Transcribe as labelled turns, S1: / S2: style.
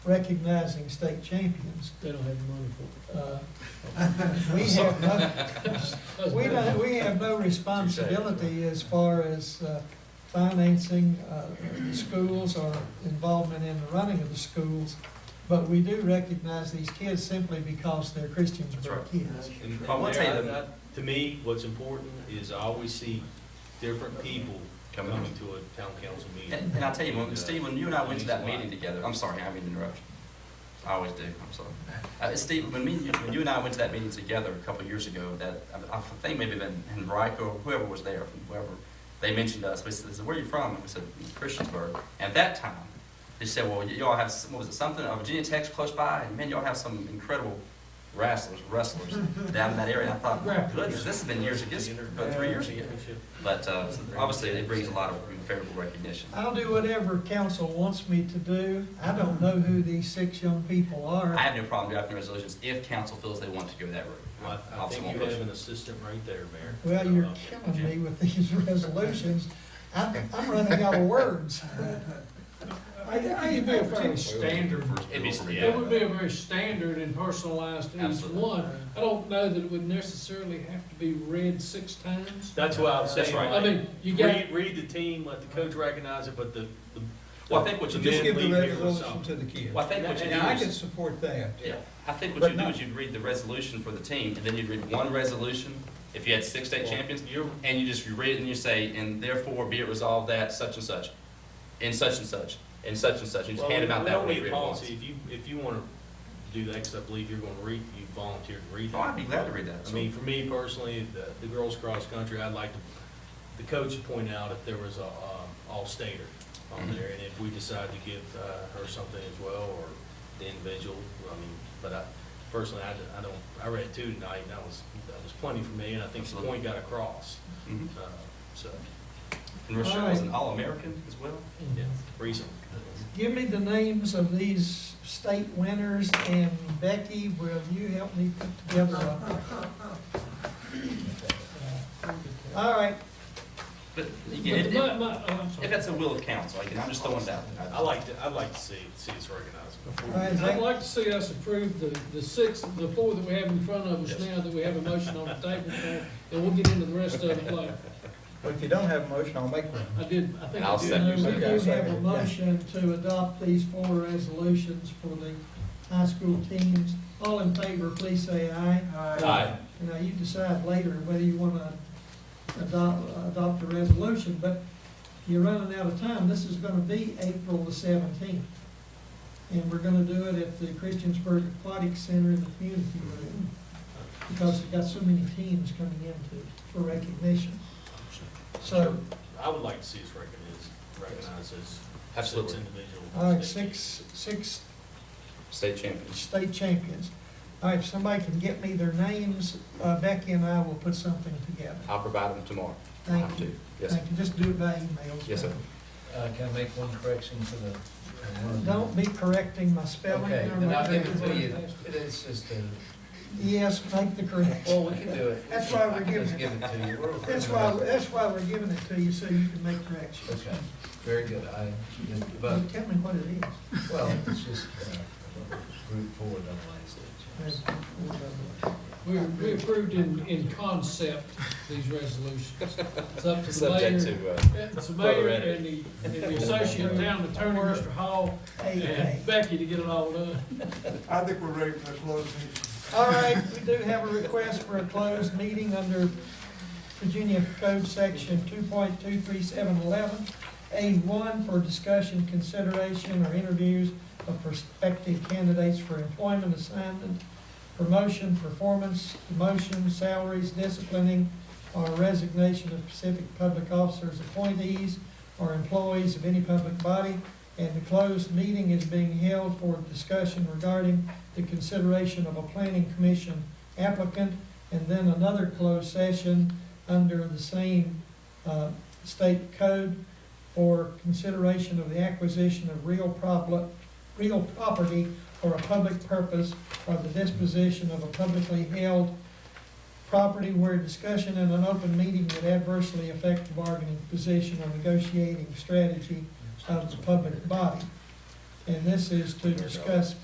S1: recognizing state champions.
S2: They don't have the money for
S1: Uh, We have, no-
S2: it.
S1: we don't, we have no responsibility as far as uh, financing uh, the schools or involvement in the running of the schools, but we do recognize these kids simply because they're Christians
S3: That's
S1: or
S3: right.
S1: kids.
S3: And
S4: I will tell you
S3: there, I-
S4: that-
S3: I- To me, what's important is I always see different people
S4: Coming.
S3: coming to a town council meeting.
S4: And, and I'll tell you, when,
S3: And, uh,
S4: Steve, when you and I went to that
S3: it means a
S4: meeting
S3: lot.
S4: together, I'm sorry, I didn't mean to interrupt you. I always do, I'm sorry. Uh, Steve, when me, and you- when you and I went to that meeting together a couple of years ago, that, I, I think maybe then Henrico or whoever was there, from whoever, they mentioned us, we said, where are you from? And we said, Christiansburg. And at that time, they said, well, y- y'all have, s- what was it, something, uh, Virginia Tech's close by, and man, y'all have some incredible wrestlers, wrestlers down in that area. And I thought, my goodness, this has been years ago, this is about three years ago. But, uh, obviously, it brings a lot of favorable recognition.
S1: I'll do whatever council wants me to do. I don't know who these six young people are.
S4: I have no problem drafting resolutions if council feels they want to go that route.
S3: I, I
S4: Obviously,
S3: think
S4: won't
S3: you
S4: push
S3: have
S4: it.
S3: an assistant right there, Mayor.
S1: Well, you're
S3: Uh,
S1: killing me with these resolutions. I'm, I'm running out of words.
S2: I, I think it'd be a fairly standard,
S4: It'd be-
S2: it would be a very standard and personalized to each
S4: Absolutely.
S2: one. I don't know that it would necessarily have to be read six times.
S3: That's what I was
S4: That's
S3: saying.
S4: right.
S2: I
S3: like,
S2: mean, you got,
S3: Read, read the team, let the coach recognize it, but the, the.
S4: Well, I think what you
S3: the
S4: do,
S5: Just give the
S3: men leave here with
S5: resolution to
S3: something.
S5: the kids.
S4: well, I think what you do
S5: And I can
S4: is,
S5: support that.
S4: yeah, I think what
S5: But
S4: you do
S5: not-
S4: is you'd read the resolution for the team, and then you'd read one resolution. If you had six state champions, you're, and you just, you read it and you say, and therefore be it resolved that such and such, and such and such, and such and such, and just
S3: Well,
S4: hand
S3: we
S4: them out that
S3: don't
S4: way,
S3: need
S4: read it once.
S3: policy. If you, if you wanna do that, 'cause I believe you're gonna read, you volunteered to read it.
S4: Oh, I'd be glad to read that.
S3: I mean, for me personally, the, the girls cross country, I'd like to, the coach to point out if there was a, um, all-stater on there, and if we decide to give, uh, her something as well, or the individual, I mean, but I, personally, I, d- I don't, I read two tonight, and that was, that was plenty for me, and I think the point got across,
S4: Mhm.
S3: uh, so,
S4: And Rochelle was an All-American as well.
S3: yeah, reason.
S1: Give me the names of these state winners, and Becky, will you help me put together a? All right,
S4: But
S2: but
S4: again, if,
S2: my,
S4: if-
S2: my, oh, I'm
S4: if
S2: sorry.
S4: that's a will of council, I can, I'm just throwing it out there.
S3: I like to, I'd like to see, see us recognized.
S1: all right, is
S2: I'd
S1: that-
S2: like to see us approve the, the six, the four that we have in front of us
S4: Yes.
S2: now, that we have a motion on the table for, and we'll get into the rest of it later.
S5: But if you don't have a motion, I'll make one.
S2: I did, I think
S4: I'll
S2: I did.
S4: second
S1: now,
S2: know
S1: we
S2: that.
S1: do have a motion to adopt these four resolutions for the high school teams. All in favor, please say aye.
S3: Aye.
S1: You know, you decide later whether you want to adopt, adopt a resolution, but you're running out of time. This is going to be April the seventeenth. And we're going to do it at the Christiansburg Aquatic Center in the community room because we've got so many teams coming in to, for recognition. So,
S3: I would like to see us recognized, recognized as six
S4: Absolutely.
S3: individual.
S1: all right, uh, six, six
S4: State champions.
S1: state champions. All right, if somebody can get me their names, uh, Becky and I will put something together.
S4: I'll provide them tomorrow. I
S1: Thank
S4: have
S1: you.
S4: to. Yes,
S1: Thank you. Just do it by email.
S4: Yes, sir.
S6: Uh, Can I make one correction to the?
S1: Don't be correcting my spelling.
S6: Okay,
S1: or
S6: then
S1: my
S6: I'll give it to
S1: grammar.
S6: you. It's just a,
S1: Yes, make the correction.
S6: well, we can do it.
S1: That's why we're giving
S6: Just give
S1: it,
S6: it to you. We're-
S1: that's why, that's why we're giving it to you, so you can make corrections.
S6: Okay, very good. I,
S1: Tell
S6: but,
S1: me what it is.
S6: well, it's just uh, group four, double A stage.
S1: There's four of them.
S2: We, we approved in, in concept these resolutions. It's up to the mayor.
S4: Subject to, uh,
S2: It's the mayor
S4: Further
S2: and the, and the associate town attorney, Mr. Hall,
S1: Eight,
S2: and
S1: eight.
S2: Becky to get it all done.
S7: I think we're ready for a closed meeting.
S1: All right, we do have a request for a closed meeting under Virginia Code Section two point two three seven eleven, A one for discussion, consideration, or interviews of prospective candidates for employment assignment, promotion, performance, demotion, salaries, disciplining, or resignation of specific public officers, appointees, or employees of any public body. And the closed meeting is being held for discussion regarding the consideration of a planning commission applicant, and then another closed session under the same uh, state code for consideration of the acquisition of real problem, real property for a public purpose or the disposition of a publicly held property where discussion in an open meeting would adversely affect the bargaining position or negotiating strategy of the public body. And this is to discuss